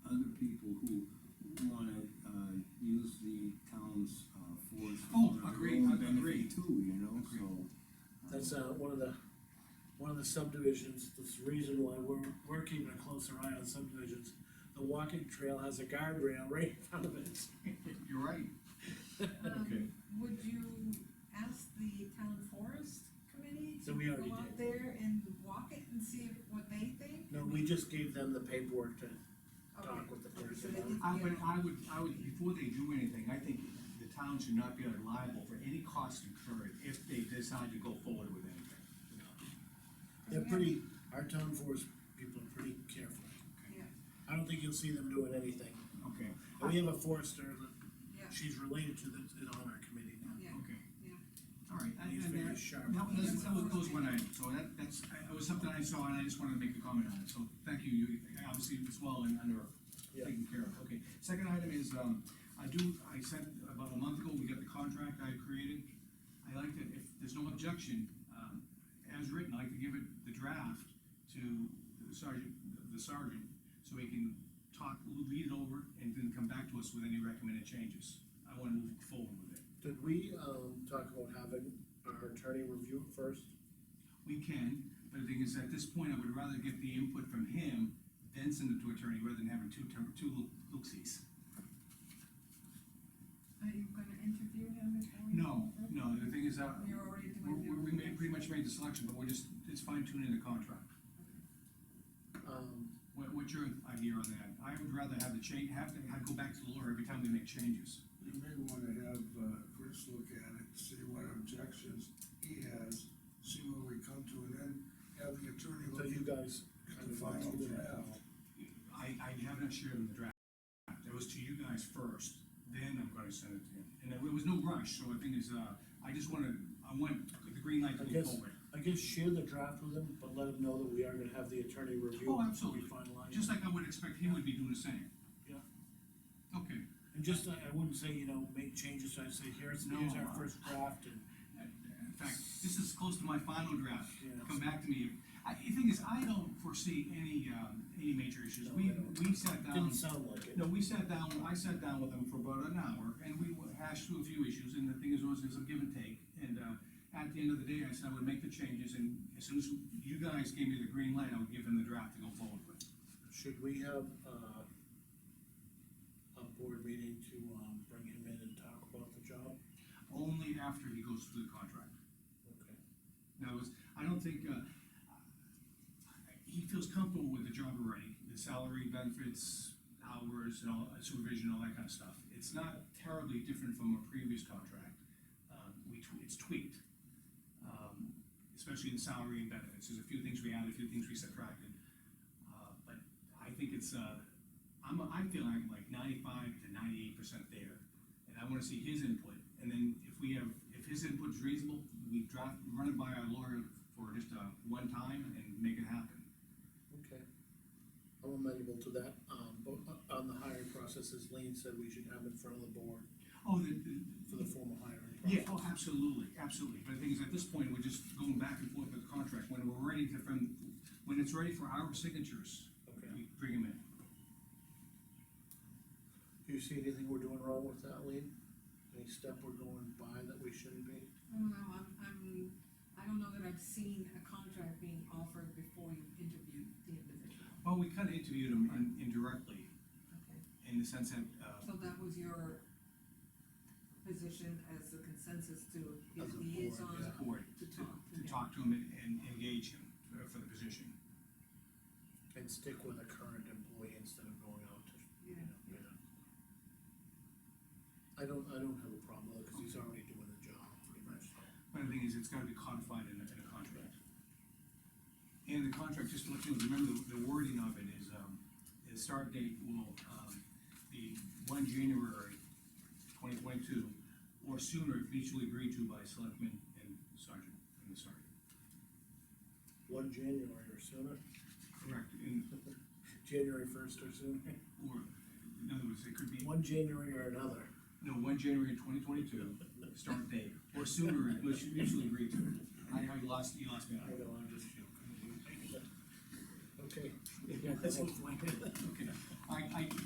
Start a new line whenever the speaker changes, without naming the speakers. wanna, uh, use the town's, uh, forest.
Oh,
for their
agreed,
own
agreed.
benefit Too, you know, so. uh,
That's, uh, one of the, one of the subdivisions, that's the reason why we're, we're keeping a closer eye on subdivisions. The walking trail has a guardrail right in front of it.
You're right.
Um,
Okay.
Would you ask the town forest committee
So we
to
already
go
did.
out there and walk it and see if- what they think?
No, we just gave them the paperwork to talk
Okay.
with the
Okay, so
person.
they need to
I
get
would,
on.
Uh, I would, I would, before they do anything, I think the town should not be liable for any cost incurred if they decide to go forward with anything.
They're pretty, our town force people are pretty careful.
Yeah,
I don't think you'll see them doing anything.
Okay,
And we have a forester that
yeah,
she's related to that's in on our committee now.
yeah,
okay.
yeah.
All right, and-
He's
and
very
that-
sharp.
that, was- that was, that was one item, so that, that's, I- it was something I saw, and I just wanted to make a comment on it, so thank you, you, obviously, it's well and under,
Yeah.
taken care of, okay. Second item is, um, I do, I said about a month ago, we got the contract I created, I like that, if there's no objection, um, as written, I'd like to give it the draft to the sergeant, the sergeant, so he can talk, lead it over, and then come back to us with any recommended changes. I wanna move forward with it.
Did we, um, talk about having our attorney review it first?
We can, but the thing is, at this point, I would rather get the input from him, then send it to attorney, rather than having two, ter- two looksies.
Are you gonna interview him before? you-
No, no, the thing is, uh,
You're already
we,
doing.
we, we made, pretty much made the selection, but we're just, it's fine tuning the contract.
Um,
What, what's your idea on that? I would rather have the change, have to, have go back to Laura every time we make changes.
You may wanna have, uh, Chris look at it, see what objections he has, see where we come to, and then have the attorney
so
look
you
at
guys kind
the
of.
final
do that.
draft.
I, I have not shared the draft, that was to you guys first, then I'm gonna send it to him. And there was no rush, so the thing is, uh, I just wanna, I want the green light to
I
move
guess-
forward.
I guess share the draft with them, but let them know that we are gonna have the attorney review.
Oh,
it before
absolutely.
We finalize.
Just like I would expect he would be doing the same.
Yeah.
Okay,
And just, I, I wouldn't say, you know, make changes, I'd say, here's,
No,
here's our
uh,
first draft, and
in fact, this is close to my final draft,
Yeah.
come back to me. I, the thing is, I don't foresee any, um, any major issues,
No,
we,
I don't.
we sat down.
didn't sound like it.
No, we sat down, I sat down with them for about an hour, and we hashed through a few issues, and the thing is, was, is a give and take. And, uh, at the end of the day, I said I would make the changes, and as soon as you guys gave me the green light, I would give them the draft to go forward with.
Should we have, uh, a board meeting to, um, bring him in and talk about the job?
Only after he goes through the contract.
Okay.
Now, it's, I don't think, uh, he feels comfortable with the job already, the salary, benefits, hours, and all, supervision, all that kind of stuff. It's not terribly different from a previous contract, um, we, tw- it's tweaked. Um, especially in salary and benefits, there's a few things we added, a few things we subtracted. Uh, but I think it's, uh, I'm, I'm feeling like ninety-five to ninety-eight percent there, and I wanna see his input. And then if we have, if his input's reasonable, we draft, run it by our lawyer for just, uh, one time and make it happen.
Okay. I'm amenable to that, um, but o- on the hiring process, as Lean said, we should have in front of the board
Oh, the, the,
for the formal hiring process.
yeah, oh, absolutely, absolutely, but the thing is, at this point, we're just going back and forth with the contract, when we're ready to, from, when it's ready for our signatures,
Okay.
we bring him in.
Do you see anything we're doing wrong with that, Lean? Any step we're going by that we shouldn't be?
I don't know, Oh, I'm, I'm, I don't know that I've seen a contract being offered before you've interviewed the individual.
Well, we kinda interviewed him in- indirectly,
Okay.
in the sense that, uh,
So that was your position as the consensus to
as
As a board,
his liaison
a board,
to talk to
to
him.
talk to him and- and engage him for- for the position.
And stick with a current employee instead of going out to, you know, you know. I don't, I don't have a problem with it, cause he's already doing the job pretty much, so.
But the thing is, it's gotta be codified in a, in a contract. And the contract, just to let you remember, the- the wording of it is, um, the start date will, um, be one January twenty twenty-two, or sooner if mutually agreed to by selectmen and sergeant, and the sergeant.
One January or sooner,
Correct, and,
January first or sooner,
or, in other words, it could be,
one January or another.
no, one January twenty twenty-two, start date, or sooner if mutually agreed to. I, I lost, you lost me.
I know, I'm just joking. Okay. Yeah, that's what's like it.
Okay, I, I,